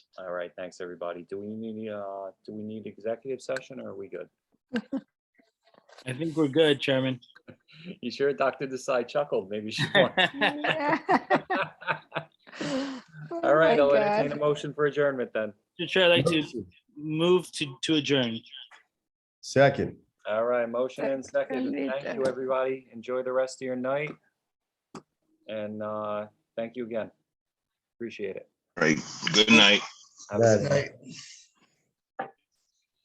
All right, thanks, everybody. Do we need, uh, do we need executive session or are we good? I think we're good, Chairman. You sure Dr. Desai chuckled? Maybe she won't. Mr. All right, I'll entertain a motion for adjournment then. Chair, I'd like to move to, to adjourn. Second. All right, motion and second. Seconded. Thank you, everybody. Enjoy the rest of your night. And, uh, thank you again. Appreciate it. Right. Good night. Have a good Good night.